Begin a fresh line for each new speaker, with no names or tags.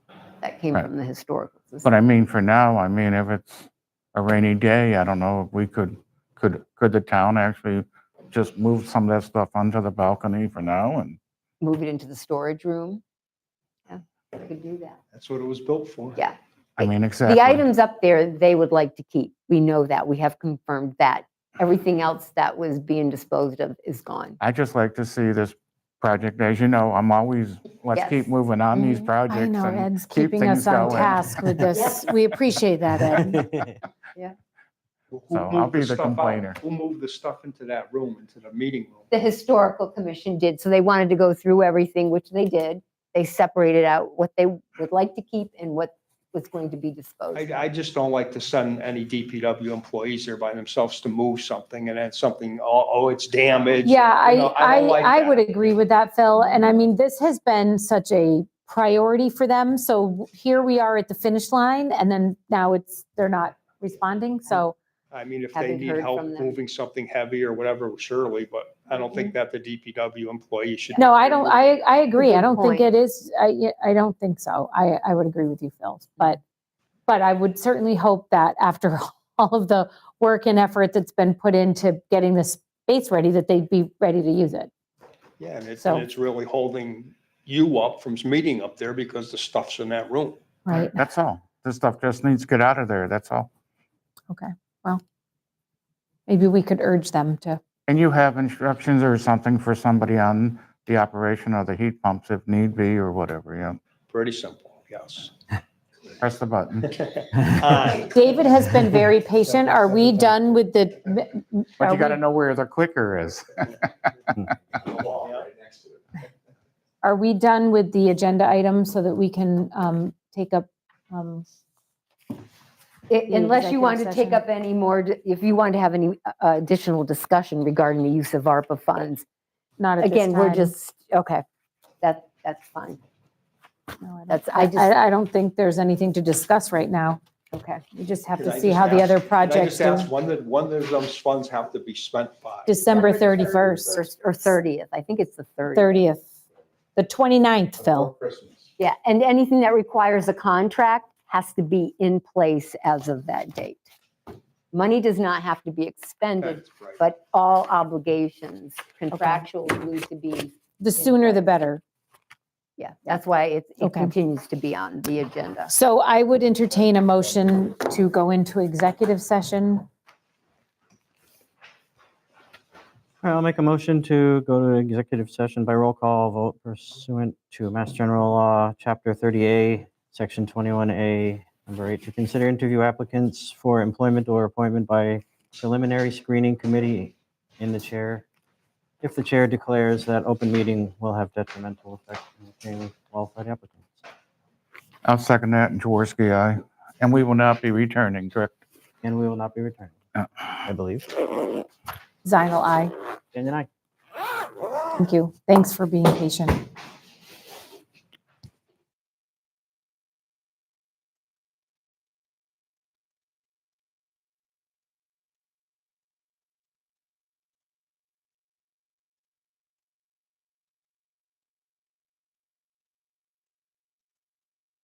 came
Right.
from the historical.
But
society.
I mean, for now, I mean, if it's a rainy day, I don't know, if we could, could, could the town actually just move some of that stuff onto the balcony for now and,
Move it into the storage room. Yeah, we could do that.
That's what it was built for.
Yeah.
I mean, exactly.
The items up there, they would like to keep. We know that. We have confirmed that. Everything else that was being disposed of is gone.
I just like to see this project, as you know, I'm always, let's keep
Yes.
moving on these
Mhm.
projects.
Mm-hmm. I know
and
Ed's
keep
keeping us
things
on
going.
task with this. We appreciate that, Ed.
Who-
So
who
I'll
moved
be the
stuff out?
complainer.
Who moved the stuff into that room, into the meeting room?
The historical commission did, so they wanted to go through everything, which they did. They separated out what they would like to keep and what was going to be disposed.
I,
of.
I just don't like to send any DPW employees there by themselves to move something and then something, oh, oh, it's damaged.
Yeah,
You
I,
know, I don't like
I, I
that.
would agree with that, Phil. And I mean, this has been such a priority for them. So here we are at the finish line and then now it's, they're not responding. So
I mean, if they
Haven't
need
heard
help
from them.
moving something heavy or whatever, surely, but I don't think that the DPW employee should.
Mm-hmm. no, I don't, I, I agree. I
Good
don't think
point.
it is, I, I don't think so. I, I would agree with you, Phil. But, but I would certainly hope that after all of the work and effort that's been put into getting this space ready, that they'd be ready to use it.
Yeah, and it's,
So-
and it's really holding you up from meeting up there because the stuff's in that room.
Right.
That's all. This stuff just needs to get out of there, that's all.
Maybe we could urge them to
And you have instructions or something for somebody on the operation of the heat pumps if need be or whatever, you know,
Pretty simple, yes.
press the button.
Aye.
David has been very patient. Are we done with the? m- m-
But
are
you got to
we-
know where the clicker is.
Yeah.
Are we done with the agenda item so that we can um, take up? um,
I-
the
Unless you
executive
want to take
session.
up any more, d- if you want to have any uh, additional discussion regarding the use of ARPA funds.
Not at this
Again, we're
time.
just, okay, that, that's fine.
No, I don't-
That's, I just,
I, I don't think there's anything to discuss right now.
okay.
We just have
Can
to
I
see
just
how the
ask-
other
Can I just
projects do.
ask, when did, when did those funds have to be spent by?
December
Or
31st,
or 30th, I think it's the 30th.
30th, the 29th, Phil.
Yeah, and anything that requires a contract has to be in place as of that date. Money does not have to be expended,
That's right.
but all obligations contractual need to be,
The sooner the better.
yeah, that's why it it
Okay.
continues to be on the agenda.
So I would entertain a motion to go into executive session.
All right, I'll make a motion to go to executive session by roll call vote pursuant to Mass General Law, Chapter 30A, Section 21A, Number 8, to consider interview applicants for employment or appointment by preliminary screening committee in the chair. If the chair declares that open meeting will have detrimental effect on obtaining qualified applicants.
I'll second that, and Jaworski, aye. And we will not be returning, correct?
And we will not be returning, I believe.
Zinal, aye.
And then I.
Thank you. Thanks for being patient.